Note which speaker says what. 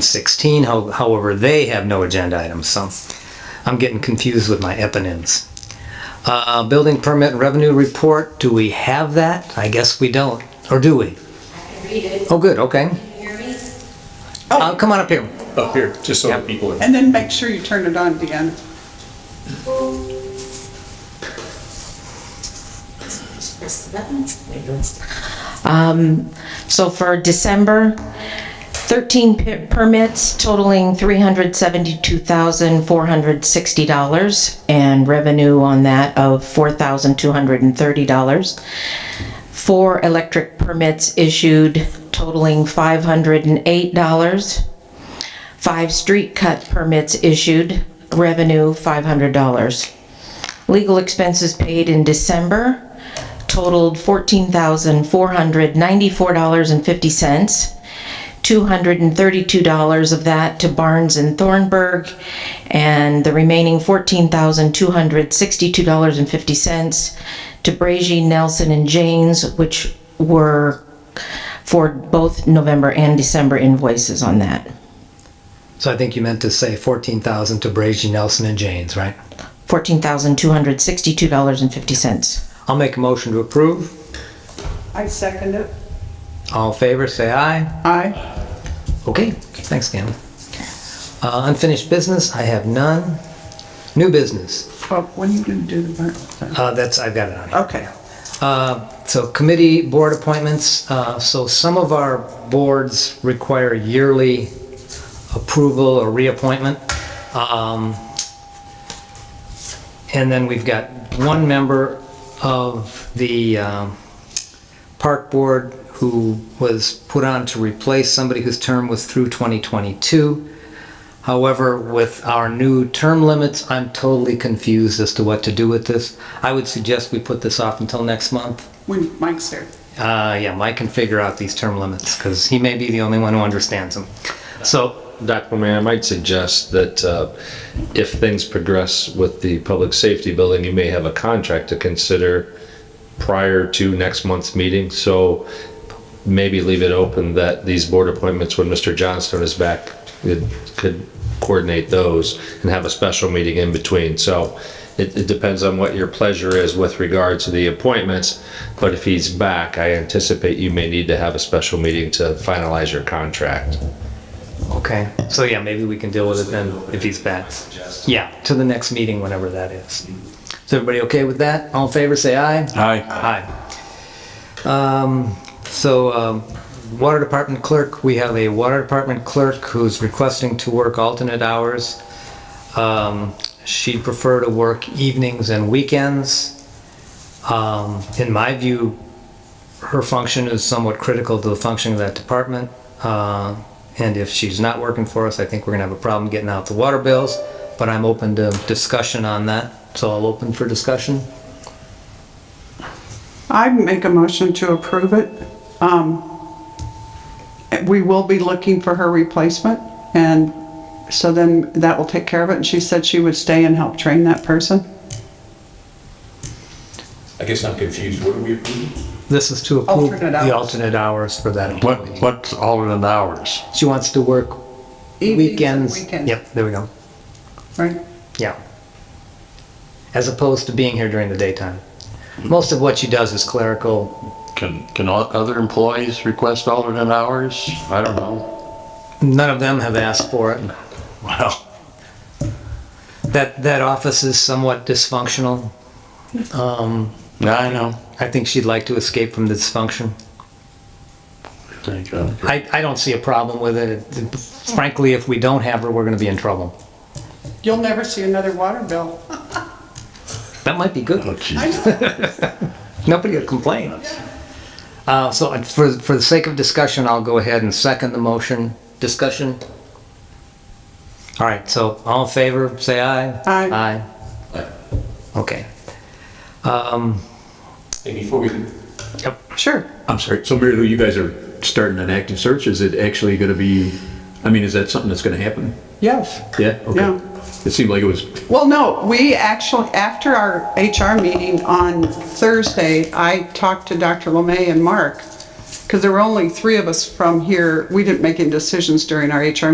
Speaker 1: 116, how- however, they have no agenda items, so I'm getting confused with my eponyms. Uh, Building permit and revenue report, do we have that? I guess we don't, or do we?
Speaker 2: Read it.
Speaker 1: Oh, good, okay.
Speaker 2: Can you hear me?
Speaker 1: Uh, Come on up here.
Speaker 3: up here, just so the people.
Speaker 4: And then make sure you turn it on, Deanna.
Speaker 2: Um, so for December, 13 p- permits totaling $372,460 and revenue on that of $4,230. Four electric permits issued totaling $508. Five street cut permits issued, revenue $500. Legal expenses paid in December totaled $14,494.50. $232 of that to Barnes and Thornburg, and the remaining $14,262.50 to Bragy, Nelson, and Janes, which were for both November and December invoices on that.
Speaker 1: So I think you meant to say 14,000 to Brazy, Nelson, and Janes, right?
Speaker 2: $14,262.50.
Speaker 1: I'll make a motion to approve.
Speaker 4: I second it.
Speaker 1: All in favor, say aye.
Speaker 4: Aye.
Speaker 1: Okay, thanks, Cameron. Uh, Unfinished business, I have none. New business,
Speaker 4: Well, when are you gonna do the burn?
Speaker 1: Uh, that's, I've got it on here.
Speaker 4: Okay.
Speaker 1: Uh, So committee, board appointments, uh, so some of our boards require yearly approval or reappointment. Um, And then we've got one member of the um, park board who was put on to replace somebody whose term was through 2022. However, with our new term limits, I'm totally confused as to what to do with this. I would suggest we put this off until next month.
Speaker 4: When Mike's here.
Speaker 1: Uh, yeah, Mike can figure out these term limits because he may be the only one who understands them. So,
Speaker 5: Dr. McMahon, I might suggest that uh, if things progress with the public safety building, you may have a contract to consider prior to next month's meeting. So maybe leave it open that these board appointments, when Mr. Johnstone is back, it could coordinate those and have a special meeting in between. So it, it depends on what your pleasure is with regard to the appointments. But if he's back, I anticipate you may need to have a special meeting to finalize your contract.
Speaker 1: okay. So, yeah, maybe we can deal with it then if he's back. Yeah, to the next meeting, whenever that is. Is everybody okay with that? All in favor, say aye.
Speaker 3: Hi.
Speaker 1: Aye. Um, so, um, water department clerk, we have a water department clerk who's requesting to work alternate hours. Um, she'd prefer to work evenings and weekends. Um, in my view, her function is somewhat critical to the function of that department. Uh, and if she's not working for us, I think we're gonna have a problem getting out the water bills, but I'm open to discussion on that. So I'll open for discussion.
Speaker 4: I make a motion to approve it. Um, we will be looking for her replacement and so then that will take care of it. And she said she would stay and help train that person.
Speaker 6: I guess I'm confused. What are we approving?
Speaker 1: This is to approve
Speaker 4: Alternate
Speaker 1: the
Speaker 4: hours.
Speaker 1: alternate hours for that
Speaker 7: What,
Speaker 1: employee.
Speaker 7: what's alternate hours?
Speaker 1: She wants to work
Speaker 4: Evenings and
Speaker 1: weekends.
Speaker 4: weekends.
Speaker 1: Yep, there we go.
Speaker 4: Right.
Speaker 1: Yeah. As opposed to being here during the daytime. Most of what she does is clerical.
Speaker 7: Can, can all other employees request alternate hours? I don't know.
Speaker 1: None of them have asked for it.
Speaker 7: Well,
Speaker 1: That, that office is somewhat dysfunctional. Um,
Speaker 7: I know.
Speaker 1: I think she'd like to escape from the dysfunction.
Speaker 7: Thank you.
Speaker 1: I, I don't see a problem with it. Frankly, if we don't have her, we're gonna be in trouble.
Speaker 4: You'll never see another water bill.
Speaker 1: That might be good.
Speaker 7: Oh, geez.
Speaker 1: Nobody will complain. Uh, so uh, for, for the sake of discussion, I'll go ahead and second the motion. Discussion? All right, so all in favor, say aye.
Speaker 4: Aye.
Speaker 6: Aye.
Speaker 1: Okay. Um,
Speaker 6: And before we,
Speaker 4: Sure.
Speaker 8: I'm sorry, so Mary Lou, you guys are starting an active search, is it actually gonna be, I mean, is that something that's gonna happen?
Speaker 4: Yes.
Speaker 8: Yeah?
Speaker 4: Yeah.
Speaker 8: Okay. It seemed like it was,
Speaker 4: Well, no, we actually, after our HR meeting on Thursday, I talked to Dr. Lemay and Mark, because there were only three of us from here. We didn't make any decisions during our HR